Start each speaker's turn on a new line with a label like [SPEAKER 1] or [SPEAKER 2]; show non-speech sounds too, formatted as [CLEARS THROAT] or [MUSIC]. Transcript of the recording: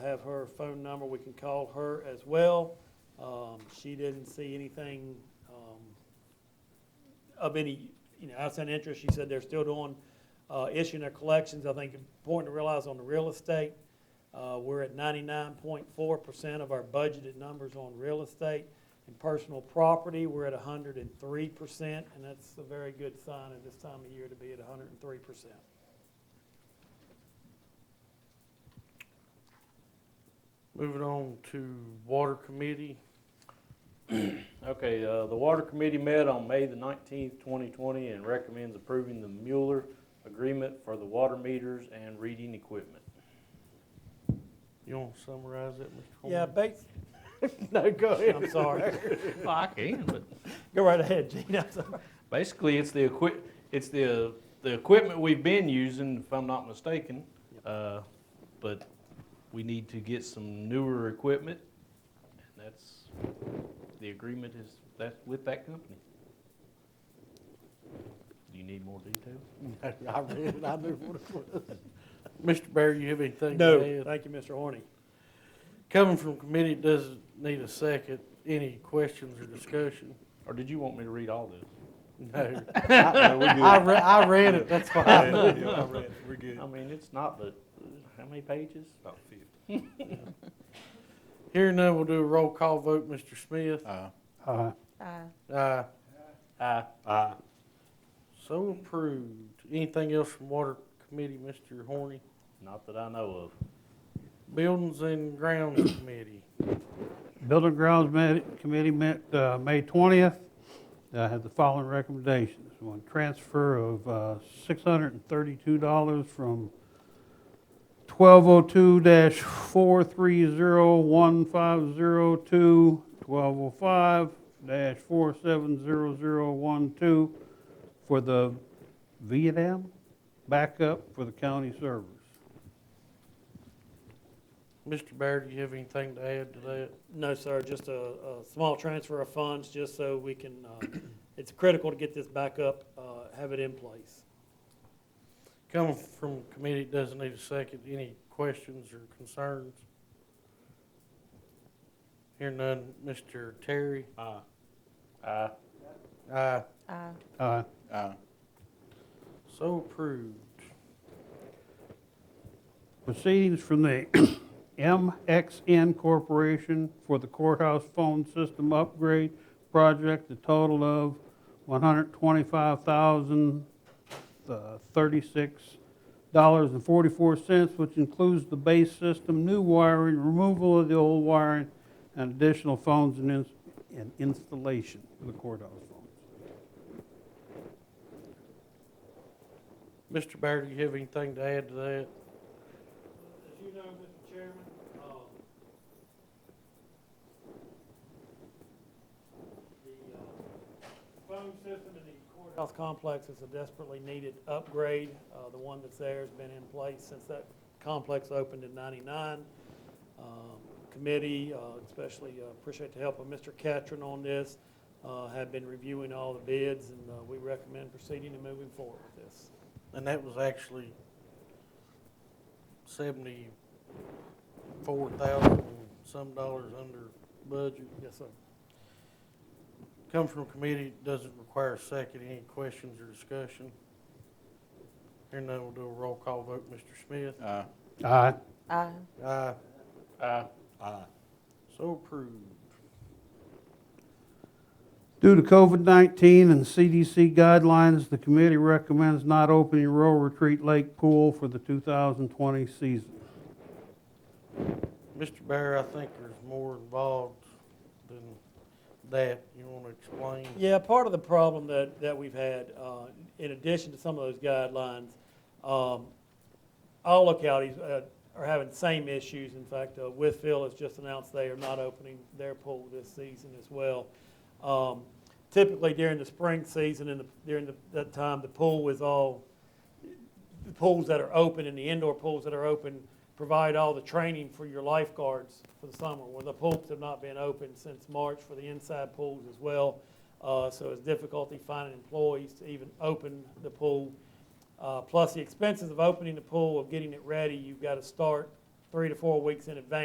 [SPEAKER 1] have her phone number, we can call her as well. Um, she didn't see anything, um, of any, you know, outside interest. She said they're still doing, uh, issuing their collections. I think important to realize on the real estate, uh, we're at ninety-nine point four percent of our budgeted numbers on real estate. And personal property, we're at hundred and three percent, and that's a very good sign at this time of year to be at hundred and three percent.
[SPEAKER 2] Moving on to Water Committee. [CLEARS THROAT] Okay, uh, the Water Committee met on May the nineteenth, twenty twenty, and recommends approving the Mueller agreement for the water meters and reading equipment. You want to summarize it, Mr.
[SPEAKER 1] Yeah,
[SPEAKER 2] Coleman?
[SPEAKER 1] bas-
[SPEAKER 2] [LAUGHS] No, go ahead.
[SPEAKER 1] I'm
[SPEAKER 2] [LAUGHS]
[SPEAKER 1] sorry.
[SPEAKER 3] Well, I can, but
[SPEAKER 1] [LAUGHS] Go right ahead, Gene, I'm sorry.
[SPEAKER 3] basically, it's the equip, it's
[SPEAKER 2] uh,
[SPEAKER 3] the, the equipment we've been using, if I'm not mistaken.
[SPEAKER 1] Yep.
[SPEAKER 3] Uh, But we need to get some newer equipment, and that's, the agreement is, that's with that company. Do you need more detail?
[SPEAKER 2] I read it, I knew what it was. Mr. Barry, you have anything to add?
[SPEAKER 1] No, thank you, Mr. Horny.
[SPEAKER 2] Coming from committee it doesn't need a second. Any questions or discussion?
[SPEAKER 3] Or did you want me to read
[SPEAKER 4] [LAUGHS]
[SPEAKER 3] all this?
[SPEAKER 2] No.
[SPEAKER 4] No, we're
[SPEAKER 3] [LAUGHS]
[SPEAKER 4] good.
[SPEAKER 2] [LAUGHS] I, re- I read it, [LAUGHS] that's why. I
[SPEAKER 4] Yeah, yeah, I read it. We're good.
[SPEAKER 3] I mean, it's not the, how many pages?
[SPEAKER 4] About fifty.
[SPEAKER 2] Hearing none, we'll do a roll call vote. Mr. Smith?
[SPEAKER 4] Uh,
[SPEAKER 5] Aye.
[SPEAKER 2] Aye.
[SPEAKER 3] Aye.
[SPEAKER 4] uh,
[SPEAKER 2] So approved. Anything else from Water Committee, Mr. Horny?
[SPEAKER 3] Not that I know of.
[SPEAKER 2] Buildings and Grounds Committee.
[SPEAKER 6] Building Grounds Med- Committee met uh, May 20th. I had the following recommendations. One, transfer of uh, $632 from 1202-4301502 to 1205-470012 for the Vietnam backup for the county servers.
[SPEAKER 2] Mr. Baird, do you have anything to add to that?
[SPEAKER 1] No, sir, just a, a small transfer of funds, just so we can, uh, it's critical to get this back up, uh, have it in place.
[SPEAKER 2] Coming from committee it doesn't need a second. Any questions or concerns? Hearing none, Mr. Terry?
[SPEAKER 4] uh,
[SPEAKER 3] Aye.
[SPEAKER 2] Aye.
[SPEAKER 5] Aye.
[SPEAKER 6] Uh,
[SPEAKER 4] uh,
[SPEAKER 2] So approved.
[SPEAKER 6] proceedings from the [CLEARS THROAT] MXN Corporation for the courthouse phone system upgrade project, a total of uh, $125,036.44, which includes the base system, new wiring, removal of the old wiring, and additional phones and ins- and installation for the courthouse phones.
[SPEAKER 2] Mr. Baird, do you have anything to add to that?
[SPEAKER 1] As you know, Mr. Chairman, um, the, uh, phone system in the courthouse complex is a desperately needed upgrade. Uh, the one that's there has been in place since that complex opened in ninety-nine. Um, Committee, uh, especially uh, appreciate the help of Mr. Catron on this, uh, have been reviewing all the bids, and, uh, we recommend proceeding and moving forward with this.
[SPEAKER 2] And that was actually seventy-four thousand some dollars under budget.
[SPEAKER 1] Yes, sir.
[SPEAKER 2] Come from committee, doesn't require a second. Any questions or discussion? Here now, we'll do a roll call vote. Mr. Smith?
[SPEAKER 4] uh,
[SPEAKER 6] Aye.
[SPEAKER 5] Aye.
[SPEAKER 2] Aye.
[SPEAKER 3] Aye.
[SPEAKER 4] uh,
[SPEAKER 2] So approved.
[SPEAKER 6] Due to COVID-19 and CDC guidelines, the committee recommends not opening Royal Retreat Lake Pool for the 2020 season.
[SPEAKER 2] Mr. Bear, I think there's more involved than that. You wanna explain?
[SPEAKER 1] Yeah, part of the problem that, that we've had, uh, in addition to some of those guidelines, um, all localities uh, are having the same issues. In fact, uh, Withville has just announced they are not opening their pool this season as well. Um, Typically during the spring season and the- during the- that time, the pool is all, the pools that are open and the indoor pools that are open provide all the training for your lifeguards for the summer. Well, the pools have not been open since March for the inside pools as well. Uh, So it's difficulty finding employees to even open the pool. Uh, Plus the expenses of opening the pool, of getting it ready, you've got to start three to four weeks in advance.